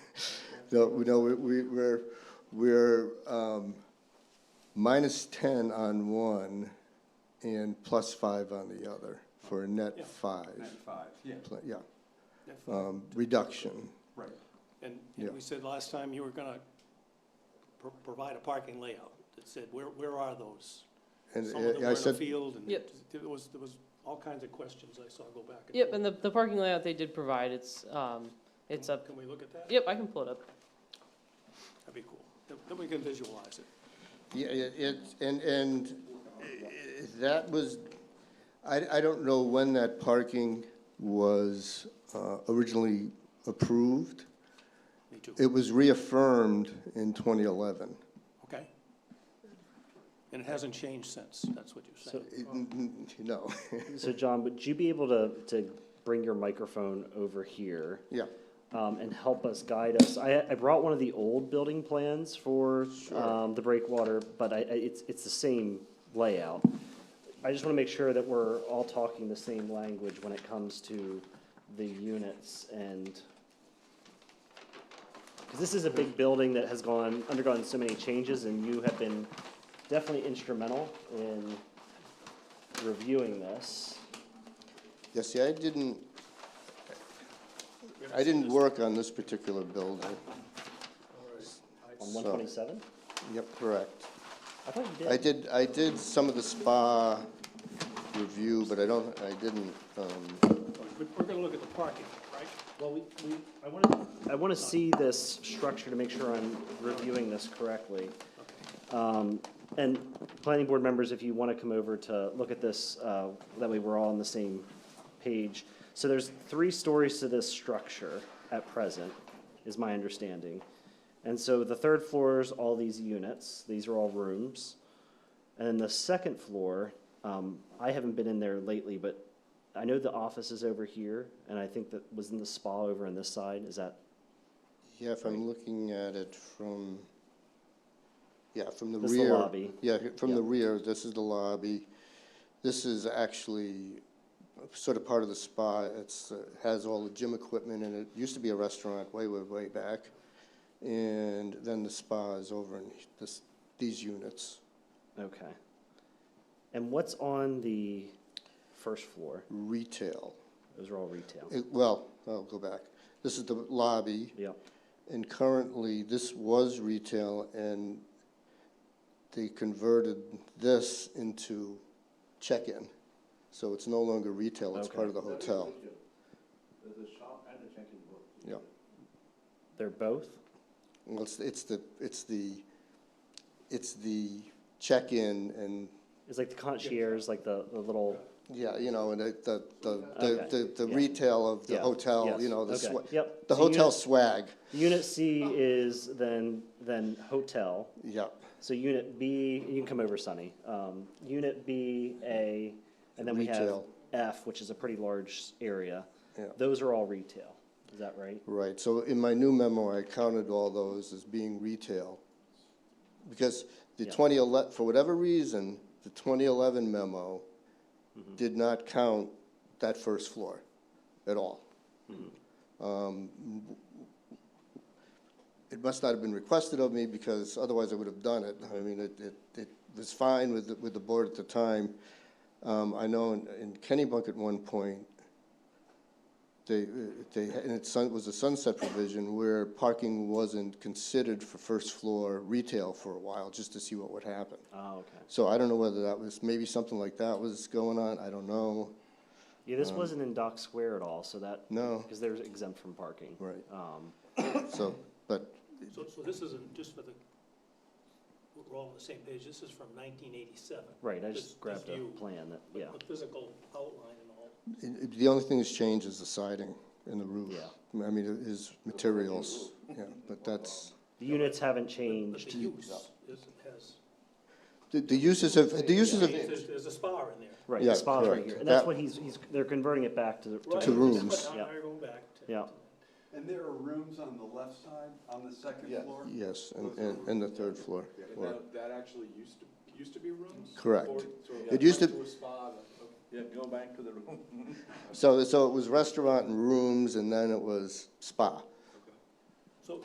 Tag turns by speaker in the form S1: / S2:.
S1: No, we- no, we- we, we're, we're, um, minus ten on one and plus five on the other for a
S2: Yeah.
S1: net five.
S2: Net five, yeah,
S1: Pl- Yeah,
S2: net five,
S1: um, reduction.
S2: right. And,
S1: Yeah.
S2: and we said last time you were gonna pro- provide a parking layout that said, where, where are those?
S1: And uh,
S2: Some of them
S1: I- I
S2: were in a
S1: said,
S2: field, and
S3: Yep.
S2: there was, there was all kinds of questions I saw go back. and
S3: Yep,
S2: forth.
S3: and the, the parking layout they did provide, it's, um, it's up,
S2: Can we look at that?
S3: yep, I can pull it up.
S2: That'd be cool. Then- Then we can visualize it.
S1: yeah, it, it- and, and i- i- that was, I, I don't know when that parking was, uh, originally approved.
S2: Me too.
S1: It was reaffirmed in twenty eleven.
S2: Okay? And it hasn't changed since, that's what you're saying.
S1: No,
S4: So John, would you be able to, to bring your microphone over here
S1: yeah,
S4: um, and help us, guide us? I, I brought one of the old building plans for um, the breakwater, but I, I- it's, it's the same layout. I just want to make sure that we're all talking the same language when it comes to the units and, because this is a big building that has gone, undergone so many changes, and you have been definitely instrumental in reviewing this.
S1: yeah, see, I didn't,
S2: We haven't
S1: I
S2: seen
S1: didn't
S2: this.
S1: work on this particular building.
S4: On
S1: So-
S4: one twenty-seven?
S1: Yep, correct.
S4: I thought you
S1: I
S4: did.
S1: did, I did some of the spa review, but I don't, I didn't, um,
S2: We- We're gonna look at the parking, right?
S4: Well, we, we, I wanna. I wanna see this structure to make sure I'm reviewing this correctly. Um, and planning board members, if you wanna come over to look at this, uh, that way we're all on the same page. So there's three stories to this structure at present, is my understanding. And so the third floor is all these units, these are all rooms. And then the second floor, um, I haven't been in there lately, but I know the office is over here, and I think that was in the spa over on this side, is that?
S1: yeah, if I'm looking at it from, yeah, from the rear.
S4: This is the lobby.
S1: Yeah, here- from the
S4: Yeah.
S1: rear, this is the lobby. This is actually sort of part of the spa. It's, uh, has all the gym equipment in it. Used to be a restaurant way, way, way back. And then the spa is over in this, these units.
S4: Okay. And what's on the first floor?
S1: Retail,
S4: Those are all retail.
S1: It- well, I'll go back. This is the lobby.
S4: Yep,
S1: And currently, this was retail, and they converted this into check-in. So it's no longer retail, it's part of the hotel. There's a shop
S4: they're both?
S1: and a check-in room. Yeah, well, it's, it's the, it's the, it's the check-in and,
S4: It's like the concierge, like the, the little,
S1: yeah, you know, and the, the, the-
S4: Okay,
S1: the, the, the
S4: yeah.
S1: retail of the
S4: Yeah,
S1: hotel,
S4: yes,
S1: you know, the
S4: okay,
S1: swa-
S4: yep.
S1: the
S4: So you-
S1: hotel swag,
S4: unit C is then, then hotel.
S1: yeah.
S4: So unit B, you can come over, Sonny. Um, unit B, A, and then we have
S1: Retail.
S4: F, which is a pretty large area.
S1: Yeah.
S4: Those are all retail, is that right?
S1: Right, so in my new memo, I counted all those as being retail. Because the
S4: Yeah.
S1: 2011, for whatever reason, the 2011 memo did not count that first floor at all. Um, It must not have been requested of me, because otherwise I would have done it. I mean, it, it, it was fine with, the- with the board at the time. Um, I know in in Kennybunk at one point, they, uh, they, and it sun- was a sunset provision where parking wasn't considered for first floor retail for a while, just to see what would happen.
S4: Oh, okay.
S1: So I don't know whether that was, maybe something like that was going on, I don't know.
S4: Yeah, this wasn't in Dock Square at all, so that.
S1: Um, No.
S4: Because they're exempt from parking.
S1: Right.
S4: Um,
S1: So, but,
S2: So, so this isn't, just for the, we're all on the same page, this is from nineteen eighty-seven.
S4: right, I just grabbed a
S2: view,
S4: plan that,
S2: the-
S4: yeah,
S2: The physical outline and all.
S1: it- it- the only thing that's changed is the siding and the roof.
S4: Yeah.
S1: I mean, it is materials, yeah, but that's,
S4: the units haven't
S2: But
S4: changed.
S2: the use is, has,
S1: the, the uses of, the uses of,
S2: there's, there's a spa in there.
S4: Right,
S1: Yeah,
S4: the spa's right
S1: correct.
S4: here, and that's
S1: That-
S4: what he's, he's, they're converting it back to, the-
S2: Right,
S1: To
S4: to,
S2: that's
S1: rooms.
S2: what- now
S4: Yeah.
S2: They're going back to.
S4: yeah,
S5: And there are rooms on the left side, on the second floor?
S1: yes, and, and, and the third floor.
S6: And that, that actually used to, used to be rooms?
S1: Correct.
S6: Or- so
S1: It used
S6: went
S1: to-
S6: a spa, then, okay.
S5: Yeah, go back to the room.
S1: So, so it was restaurant and rooms, and then it was spa.